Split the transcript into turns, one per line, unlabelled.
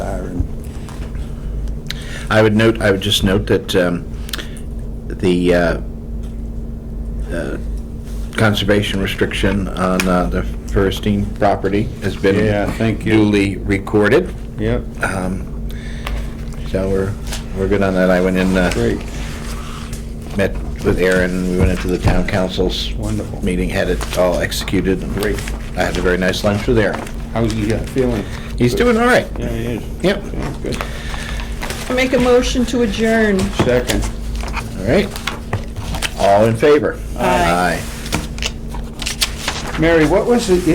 I would note, I would just note that um, the uh, uh, conservation restriction on uh, the Ferristine property has been
Yeah, thank you.
duly recorded,
Yep,
so we're, we're good on that. I went in, uh,
great,
met with Aaron, we went into the town council's
wonderful.
meeting, had it all executed.
Great.
I had a very nice lunch with Aaron.
How's he uh, feeling?
He's doing all right.
Yeah, he is.
Yep.
Sounds good.
Make a motion to adjourn.
Second.
All right. All in favor?
Aye.
Aye.
Mary, what was the